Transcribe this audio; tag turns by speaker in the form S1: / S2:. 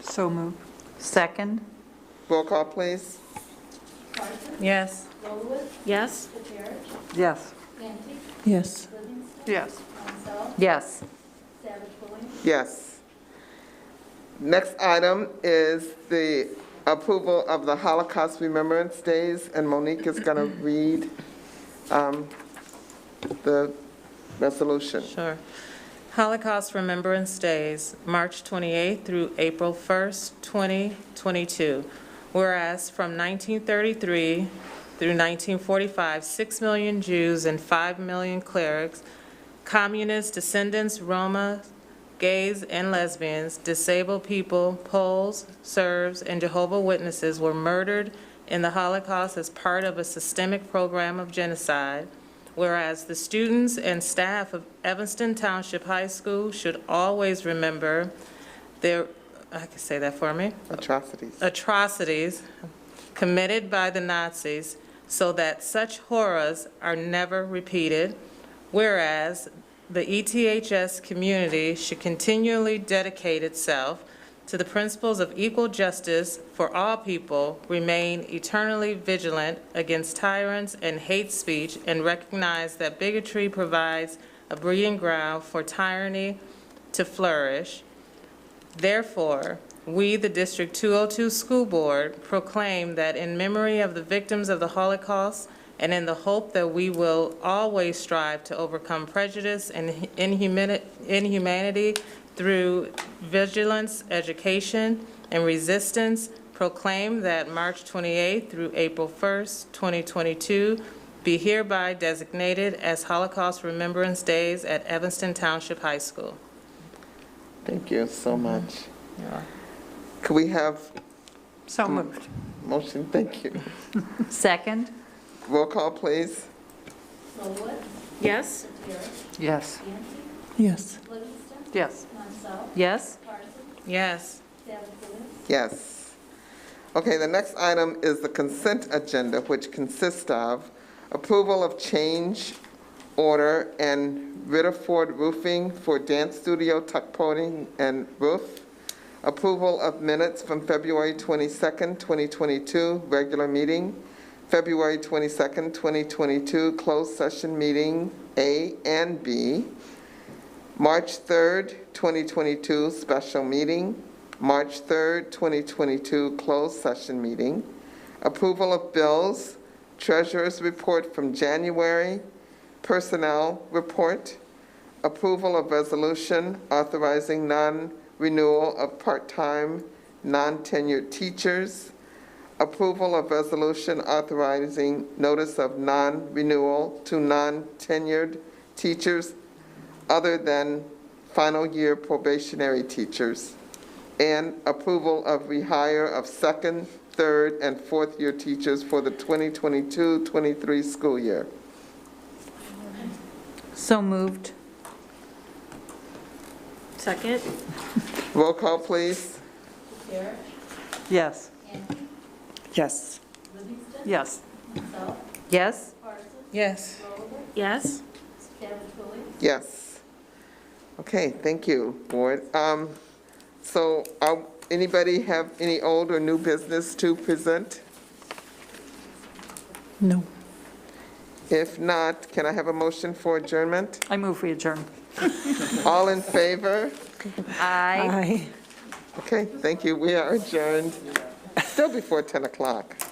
S1: So move.
S2: Second?
S3: Roll call, please.
S2: Yes.
S4: Yes?
S1: Yes.
S5: Ante,
S6: yes,
S5: Livingston,
S1: Yes.
S5: Mansell,
S2: Yes.
S5: Savage Williams,
S3: Yes. Next item is the approval of the Holocaust Remembrance Days, and Monique is going to read um, the resolution.
S7: Sure. Holocaust Remembrance Days, March 28th through April 1st, 2022. Whereas from 1933 through 1945, 6 million Jews and 5 million clerics, communist descendants, Roma, gays and lesbians, disabled people, Poles, Serbs, and Jehovah Witnesses were murdered in the Holocaust as part of a systemic program of genocide. Whereas the students and staff of Evanston Township High School should always remember their, I can say that for me?
S3: Atrocities.
S7: atrocities committed by the Nazis so that such horrors are never repeated, whereas the E ETHS community should continually dedicate itself to the principles of equal justice for all people, remain eternally vigilant against tyrants and hate speech, and recognize that bigotry provides a breeding ground for tyranny to flourish. Therefore, we, the District 202 School Board, proclaim that in memory of the victims of the Holocaust and in the hope that we will always strive to overcome prejudice and inhumani- inhumanity through vigilance, education, and resistance, proclaim that March 28th through April 1st, 2022, be hereby designated as Holocaust Remembrance Days at Evanston Township High School.
S3: Thank you so much. Could we have
S1: So moved.
S3: motion? Thank you.
S2: Second?
S3: Roll call, please.
S5: Norwood,
S4: Yes?
S5: Satiric,
S1: Yes.
S5: Ante,
S6: yes.
S5: Livingston,
S1: Yes.
S5: Mansell,
S2: Yes?
S5: Parsons,
S7: Yes.
S5: Savage Williams,
S3: Yes. Okay, the next item is the consent agenda, which consists of approval of change order and Ritterford Roofing for dance studio tuck pointing and roof, approval of minutes from February 22nd, 2022, regular meeting, February 22nd, 2022, closed session meeting A and B, March 3rd, 2022, special meeting. March 3rd, 2022, closed session meeting. Approval of bills, treasurer's report from January, personnel report. Approval of resolution authorizing non-renewal of part-time, non-tenured teachers. Approval of resolution authorizing notice of non-renewal to non-tenured teachers other than final year probationary teachers, and approval of rehire of second, third, and fourth year teachers for the 2022-23 school year.
S2: So moved.
S4: Second?
S3: Roll call, please.
S5: Satiric,
S1: Yes.
S5: Ante,
S6: Yes.
S5: Livingston,
S1: Yes.
S5: Mansell,
S2: Yes?
S5: Parsons,
S7: Yes.
S5: Norwood,
S4: Yes?
S5: Savage Williams,
S3: Yes. Okay, thank you, Board. Um, So, uh, anybody have any old or new business to present?
S6: No.
S3: If not, can I have a motion for adjournment?
S1: I move we adjourn.
S3: All in favor?
S2: Aye.
S6: Aye.
S3: Okay, thank you. We are adjourned, still before 10 o'clock.